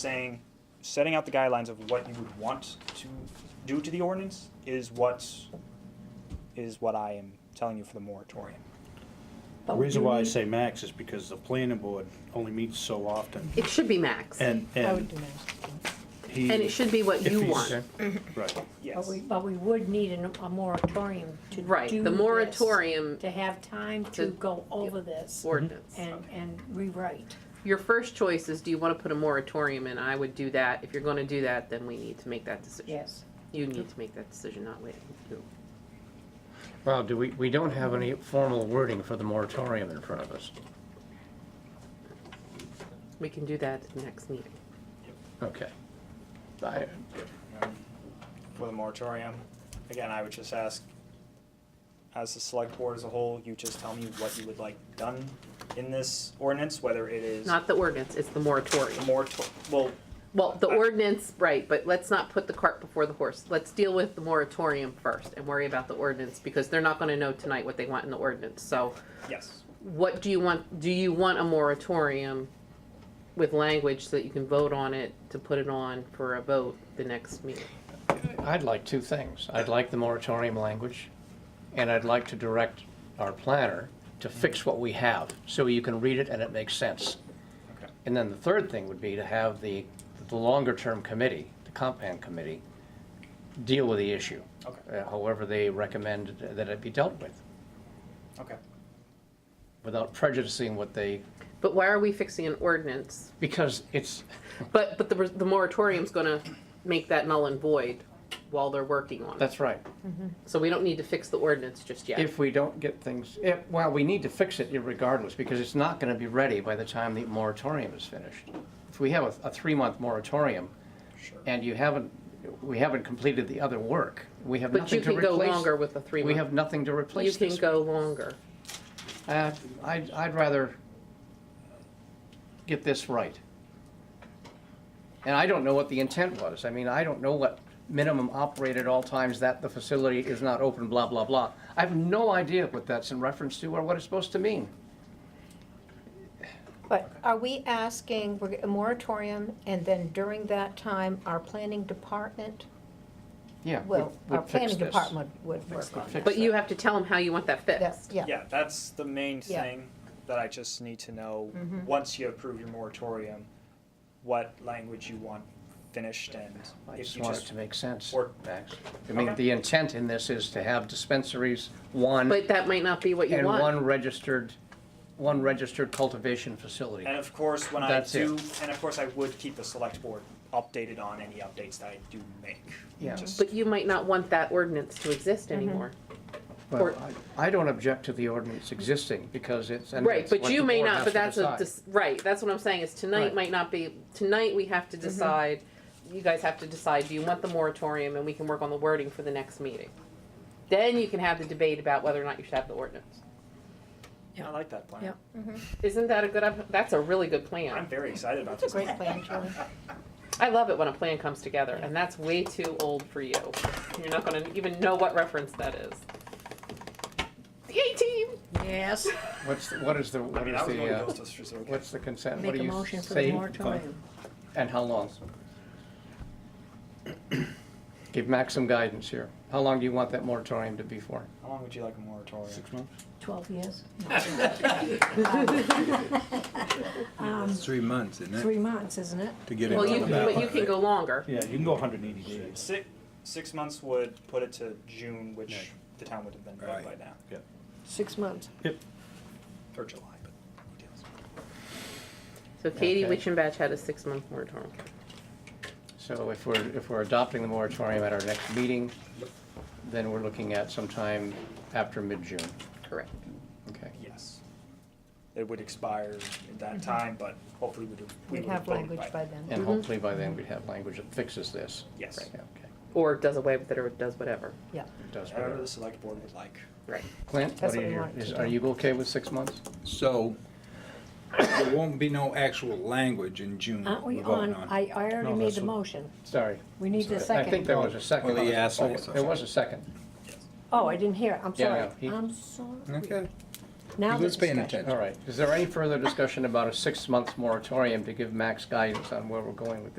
saying, setting out the guidelines of what you would want to do to the ordinance is what, is what I am telling you for the moratorium. The But reason you why I need- say max is because the planning board only meets so often, It should be max. And and, I would and do that. he. it should be what if you he's- want. Mm-hmm. Right, Yes. But we, but we would need an- a moratorium to do Right, the this, moratorium To have time to To- go over this ordinance. and, and rewrite. Your first choice is, do you want to put a moratorium in? I would do that. If you're going to do that, then we need to make that decision. Yes. You need to make that decision, not wait. you. Well, do we, we don't have any formal wording for the moratorium in front of us. We can do that at the next meeting. Okay. I, um, For the moratorium, again, I would just ask, as the select board as a whole, you just tell me what you would like done in this ordinance, whether it is Not the ordinance, it's the the moratorium. moratorium, well, Well, the ordinance, right, but let's not put the cart before the horse. Let's deal with the moratorium first and worry about the ordinance because they're not going to know tonight what they want in the ordinance. So yes, what do you want, do you want a moratorium with language so that you can vote on it, to put it on for a vote the next meeting? I'd like two things. I'd like the moratorium language, and I'd like to direct our planner to fix what we have, so you can read it and it makes sense. okay, And then the third thing would be to have the, the longer-term committee, the comp plan committee, deal with the issue, okay, uh, however they recommend that it be dealt with, okay. without prejudicing what they, But why are we fixing an ordinance? because it's, But, but the, the moratorium's gonna make that null and void while they're working on it. that's right. So we don't need to fix the ordinance just yet. if we don't get things, if, well, we need to fix it regardless, because it's not gonna be ready by the time the moratorium is finished. If we have a, a three-month moratorium, and you haven't, we haven't completed the other work, we have But you nothing to can replace. go longer with a three We have month. nothing to You replace can this. go longer. Uh, I'd, I'd rather get this right. And I don't know what the intent was, I mean, I don't know what minimum operate at all times that the facility is not open, blah, blah, blah. I have no idea what that's in reference to or what it's supposed to mean. But are we asking, we're- a moratorium, and then during that time, our planning department Yeah. would- will, would our fix planning this. department would work on fix that. But you have to tell them how you want that That's- fixed. Yeah, Yeah, that's the main Yeah. Mm-hmm. thing that I just need to know, once you approve your moratorium, what language you want finished and I if just you want it just, to make sense, or- Max. I mean, Okay. the intent in this is to have dispensaries, one, But that might not be what you and want. one registered, one registered cultivation facility. and of course, when I That's it. do, and of course, I would keep the select board updated on any updates that I do make. Yeah. Just- But you might not want that ordinance to exist anymore. Well, Or- I I don't object to the ordinance existing because it's. and Right, it's but what you the may board not, has but to that's a, decide. dis- right, that's what I'm saying, is tonight Right. Mm-hmm. might not be, tonight we have to decide, you guys have to decide, do you want the moratorium, and we can work on the wording for the next meeting. Then you can have the debate about whether or not you should have the ordinance. I like that plan. Yeah. Isn't that a good, op- that's a really good I'm plan. very excited about this. Great plan, Julie. I love it when a plan comes together, and that's way too old for you. You're not gonna even know what reference that is. The eighteen, Yes, What's, the- what is the, I what mean, is I was the, going to uh, go to specific. what's the consent? What make do a you motion for say? the moratorium. And how long? Give Max some guidance here. How long do you want that moratorium to be for? How long would you like a moratorium? months? Twelve years? Three months, isn't it? Three months, isn't it? To get it well, you, on can- the but you ballot. can go longer. Yeah, you can go hundred and eighty days. Six, six months would put it to June, which the town would have been done by Right. now, Six months. Yep. or July, but. who deals? So Katie Okay. Witchenbach had a six-month moratorium. So if we're, if we're adopting the moratorium at our next meeting, then we're looking at sometime after mid-June. Correct. Okay. Yes. It would expire at that time, but hopefully we do. we Mm-hmm. We'd would have vote language by by then. then. Mm-hmm. And hopefully by then we'd have language that fixes this. Yes. Right, okay. Or does away with it or does whatever. It does However better. the select board would like. Right. Clint, That's what are what we your, want is, to are do. you okay with six months? So, there won't be no actual language in June Aren't we're we voting on, on. I, I already No, made that's the what- motion. Sorry. We need the I second. think there was a second. Well, he asked Oh, also. There was a second. Oh, I didn't hear it, I'm Yeah, sorry. yeah, he- I'm sorry. Okay, Now He was the paying discussion. attention. All right. Is there any further discussion about a six-month moratorium to give max guidance on where we're going with this?